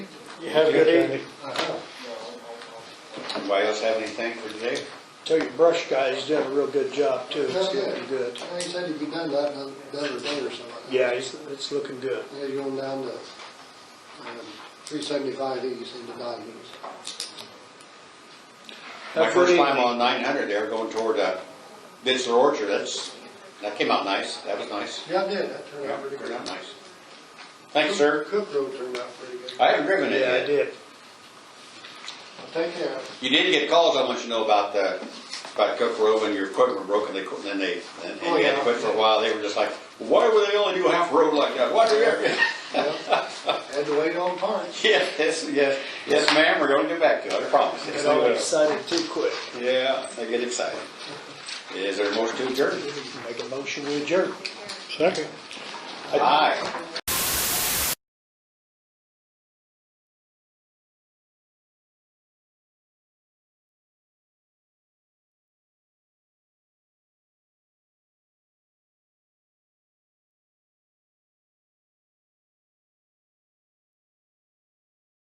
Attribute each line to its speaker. Speaker 1: You have a good evening.
Speaker 2: Anybody else have anything for today?
Speaker 1: Tell your brush guy, he's doing a real good job too. It's
Speaker 3: That's
Speaker 1: looking
Speaker 3: good.
Speaker 1: good.
Speaker 3: Well, He said he'd be done that another another day or something.
Speaker 1: Yeah, he's, it's looking good.
Speaker 3: Yeah, you're going down to um, three seventy-five east into Dodgers.
Speaker 2: My
Speaker 1: Have a good
Speaker 2: first time
Speaker 1: evening.
Speaker 2: on nine hundred there, going toward, uh, Bitzler Orchard, that's, that came out nice, that was nice.
Speaker 3: Yeah, I did, that turned
Speaker 2: Yeah,
Speaker 3: out pretty
Speaker 2: turned
Speaker 3: good.
Speaker 2: out nice. Thanks, sir.
Speaker 3: Cook Road turned out pretty good.
Speaker 2: I haven't driven it
Speaker 1: Yeah, I
Speaker 2: yet.
Speaker 1: did.
Speaker 3: Take care.
Speaker 2: You did get calls, I want you to know about, uh, about Cook Road when your equipment broke and they, quit- then they, and and
Speaker 3: Oh,
Speaker 2: you had to
Speaker 3: yeah.
Speaker 2: quit for a while, they were just like, why would they only do half a road like that? Why do you ever?
Speaker 3: Yep. Had to wait on parts.
Speaker 2: Yes, yes, yes, ma'am, we're gonna get back to it, I promise.
Speaker 1: Got all excited too quick.
Speaker 2: Yeah, I get excited. Is there a motion to adjourn?
Speaker 1: Make a motion, we adjourn. Second.
Speaker 2: Aye.